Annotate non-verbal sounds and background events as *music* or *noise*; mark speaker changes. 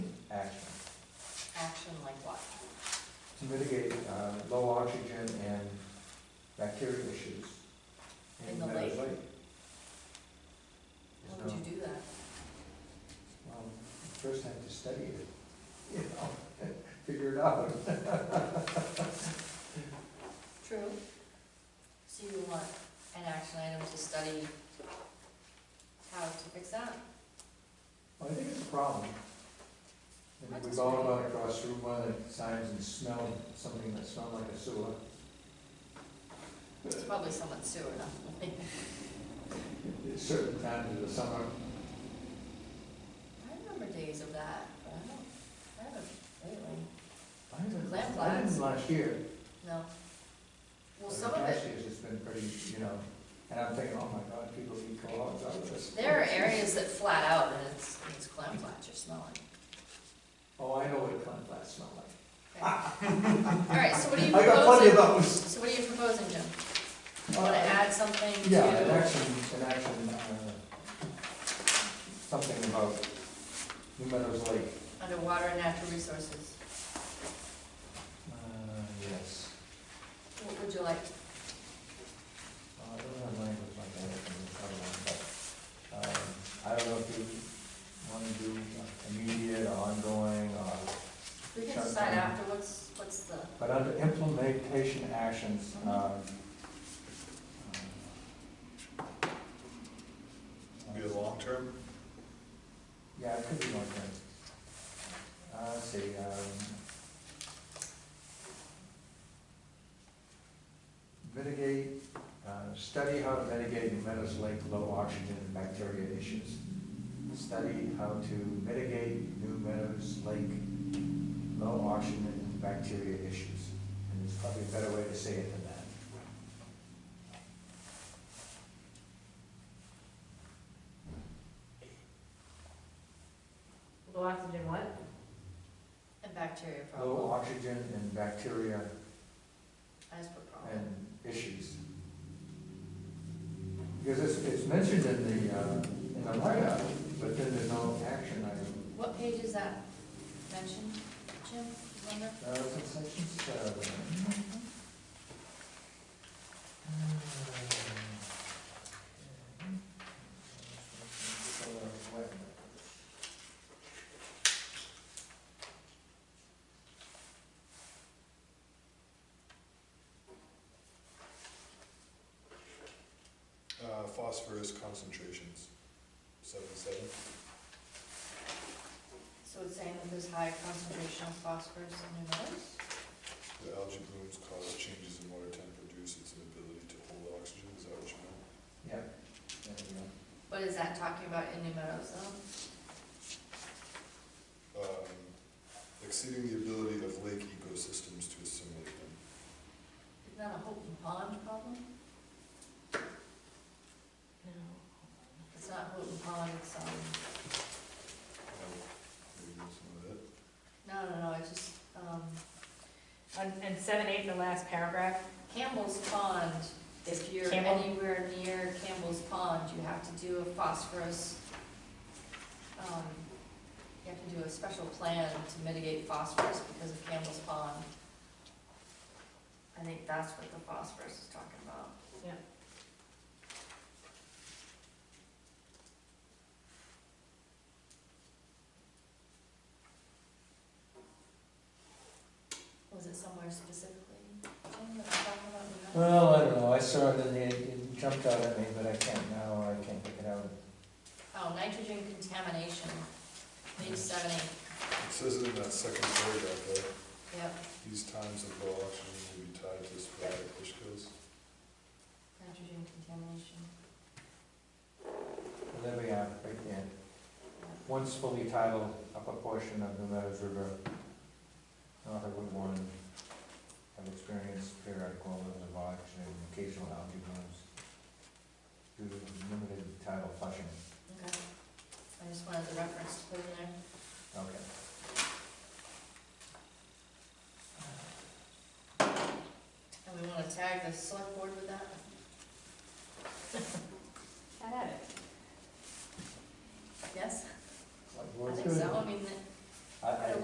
Speaker 1: to mitigate uh, low oxygen and bacteria issues.
Speaker 2: In the
Speaker 1: Meadows
Speaker 2: lake.
Speaker 1: There's
Speaker 2: Why would
Speaker 1: no-
Speaker 2: you do that?
Speaker 1: well, first have to study it, *laughs* you know, *laughs* figure it out.
Speaker 2: True. So you want an action item to study how to fix that?
Speaker 1: Well, I think it's a problem. I think we've all gone across Route One at times and smelled something that smelled like a sewer.
Speaker 2: It's probably someone's sewer, not mine.
Speaker 1: At certain times of the summer,
Speaker 2: *laughs* I remember days of that, but I don't, I haven't lately.
Speaker 1: I haven't,
Speaker 2: Lamp
Speaker 1: I
Speaker 2: lights.
Speaker 1: didn't last year.
Speaker 2: No. Well,
Speaker 1: but
Speaker 2: some of
Speaker 1: Last
Speaker 2: it,
Speaker 1: year's has been pretty, you know, and I'm thinking, oh my God, people eat co-ops out of this.
Speaker 2: there are areas that flat out and it's, it's clam flats you're smelling.
Speaker 1: Oh, I know what plant flats smell like.
Speaker 2: Okay.
Speaker 1: *laughs*
Speaker 2: All right, so what are you
Speaker 1: I got plenty of
Speaker 2: proposing?
Speaker 1: those.
Speaker 2: So what are you proposing, Jim? You
Speaker 1: Uh,
Speaker 2: wanna add something to?
Speaker 1: Yeah, an action, an action, uh, something about New Meadows Lake.
Speaker 2: Underwater and natural resources.
Speaker 1: Uh, yes.
Speaker 2: What would you like?
Speaker 1: Uh, I don't have language like that in the other one, but, um, I don't know if you want to do immediate or ongoing or,
Speaker 2: We can
Speaker 1: Sure.
Speaker 2: decide afterwards, what's the,
Speaker 1: but under implementation actions, um, um.
Speaker 3: Be the long term?
Speaker 1: Yeah, it could be one thing. Uh, let's see, um. Mitigate, uh, study how to mitigate New Meadows Lake low oxygen and bacteria issues. Study how to mitigate New Meadows Lake low oxygen and bacteria issues. And there's probably a better way to say it than that.
Speaker 4: Low oxygen what?
Speaker 2: and bacteria
Speaker 1: Low
Speaker 2: problem?
Speaker 1: oxygen and bacteria
Speaker 2: I just put problem.
Speaker 1: and issues. Because it's, it's mentioned in the, uh, in the write-up, but then there's no action item.
Speaker 2: What page is that mentioned, Jim, you remember?
Speaker 1: Uh, it's in section seven.
Speaker 3: Uh, phosphorus concentrations, seventy-seven.
Speaker 2: So it's saying that there's high concentration of phosphorus in New Meadows?
Speaker 3: The algae blooms cause changes in water temperature, reduce its ability to hold oxygen, is that what you meant?
Speaker 1: Yeah. there we go.
Speaker 2: What is that talking about in New Meadows though?
Speaker 3: Um, exceeding the ability of lake ecosystems to assimilate them.
Speaker 2: Isn't that a Houghton Pond problem?
Speaker 4: No.
Speaker 2: It's not Houghton Pond, it's, um,
Speaker 3: Um, maybe that's some of it.
Speaker 2: no, no, no, I just, um,
Speaker 4: And, and seven, eight, the last paragraph,
Speaker 2: Campbell's Pond. If you're
Speaker 4: Campbell?
Speaker 2: anywhere near Campbell's Pond, you have to do a phosphorus, um, you have to do a special plan to mitigate phosphorus because of Campbell's Pond. I think that's what the phosphorus is talking about.
Speaker 4: Yeah.
Speaker 2: Was it somewhere specifically, Jim, that we're talking about? We don't-
Speaker 1: Well, I don't know, I saw it in the, it jumped out at me, but I can't now, I can't pick it out.
Speaker 2: Oh, nitrogen contamination, page seventy,
Speaker 3: It says it in that second paragraph, though.
Speaker 2: yep,
Speaker 3: These times of low oxygen will be tied to sporadic fish kills.
Speaker 2: nitrogen contamination.
Speaker 1: Well, There we are, right there. Once fully titled, upper portion of the Meadows River, north of Route one, have experienced periodic overloads of oxygen and occasional algae blooms due to limited tidal flushing.
Speaker 2: Okay, I just wanted the reference to put in there.
Speaker 1: Okay.
Speaker 2: And we wanna tag the select board with that?
Speaker 4: I had it.
Speaker 2: Yes,
Speaker 1: Like,
Speaker 2: I
Speaker 1: well, it's
Speaker 2: think
Speaker 1: good.
Speaker 2: so, I mean,
Speaker 1: I, I,